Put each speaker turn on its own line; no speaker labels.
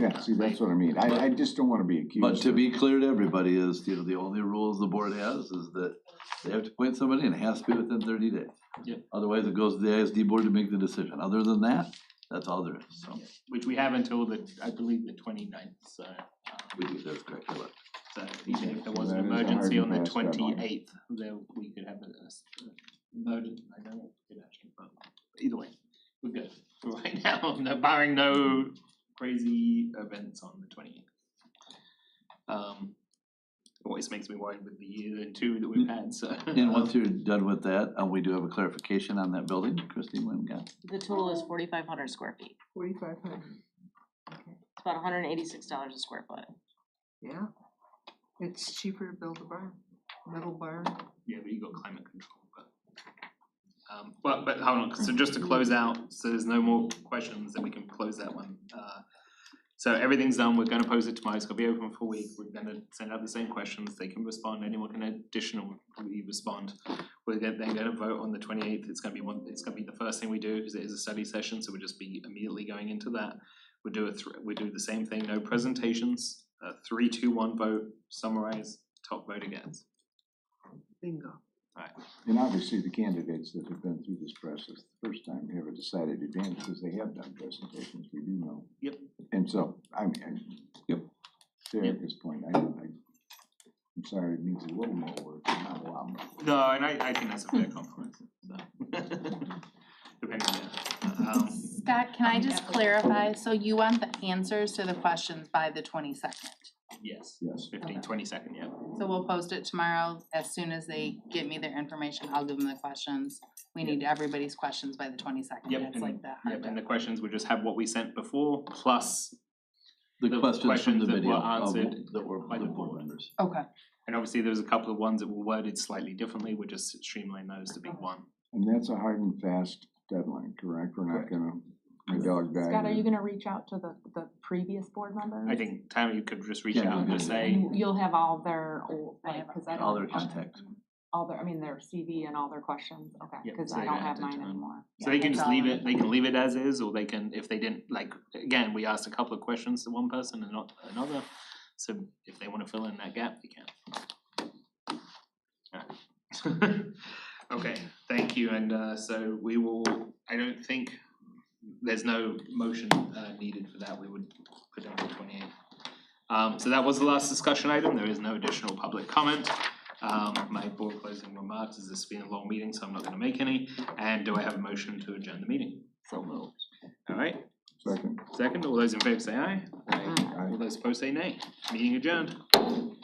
Yeah, see, that's what I mean, I, I just don't wanna be accused.
But to be clear to everybody is, you know, the only rules the board has is that they have to appoint somebody and it has to be within thirty days.
Yeah.
Otherwise, it goes to the ISD board to make the decision. Other than that, that's all there is, so.
which we have until the, I believe, the twenty ninth, so um,
We do, that's correct, I like.
so even if there was an
That is a hard
emergency on the
and fast
twenty
deadline.
eighth, there we could have a, a s- a emergency, I don't know, if we could actually, but either way, we're good for right now, no- barring no crazy events on the twenty eighth. Um, always makes me worried with the year and two that
Mm.
we've had, so.
And once you're done with that, uh, we do have a clarification on that building, Christine, when we got,
The total is forty-five hundred square feet.
Forty-five hundred,
It's about hundred and eighty-six dollars a square foot.
yeah. It's cheaper to build a barn, metal barn.
Yeah, but you got climate control, but. Um, but, but hold on, so just to close out, so there's no more questions, then we can close that one, uh. So everything's done, we're gonna post it tomorrow, it's gonna be open for a week, we're gonna send out the same questions, they can respond, anyone can additional, we respond. We're then, then gonna vote on the twenty eighth, it's gonna be one, it's gonna be the first thing we do, because it is a study session, so we'll just be immediately going into that. We do a thr- we do the same thing, no presentations, uh, three, two, one vote, summarize, top vote against.
Bingo.
And obviously, the candidates that have been through this process the first time have a decided advantage, because they have done presentations, we do know.
Yep.
And so, I mean,
Yep.
Derek's point, I, I, I'm sorry, it needs a little more work, but not a lot more.
No, and I I think that's a fair compliment, so. Depending, yeah, um,
Scott, can I just clarify? So you want the answers to the questions by the twenty-second?
yes,
Yes,
fifteen, twenty second, yeah,
So we'll post it tomorrow. As soon as they give me their information, I'll give them the questions. We need everybody's questions by the twenty-second.
Yep,
That's
and-
like the hard
yep, and
deadline.
the questions would just have what we sent before, plus,
the
The
questions from
questions
the
that were
video of,
answered
that were by
by
the
the
board
board.
members.
Okay.
and obviously there was a couple of ones that were worded slightly differently, we're just streamlining those to be one.
and that's a hard and fast deadline, correct? We're not gonna, my dog died.
Scott, are you gonna reach out to the, the previous board members?
I think Tammy could just reach
Yeah,
out and
okay.
just say,
And You'll have all their, old-
I
like,
have
cause I don't.
all their contacts.
All their, I mean, their CV and all their questions, okay,
Yep,
cause
so
I
they
don't
don't have
have
to
mine
turn.
anymore.
So they can
that's
just
all
leave
I
it, they can leave it as is, or they can, if they didn't, like, again, we asked a couple of questions to one person and not to another. So if they wanna fill in that gap, they can. Alright. Okay, thank you, and uh so we will, I don't think, there's no motion uh needed for that, we would put down the twenty eighth. Um so that was the last discussion item, there is no additional public comment. Um my board closing remarks is this has been a long meeting, so I'm not gonna make any, and do I have a motion to adjourn the meeting?
So moved.
Alright,
Second,
second, all those in favor say aye. Aye.
I-
All those opposed say nay, meeting adjourned.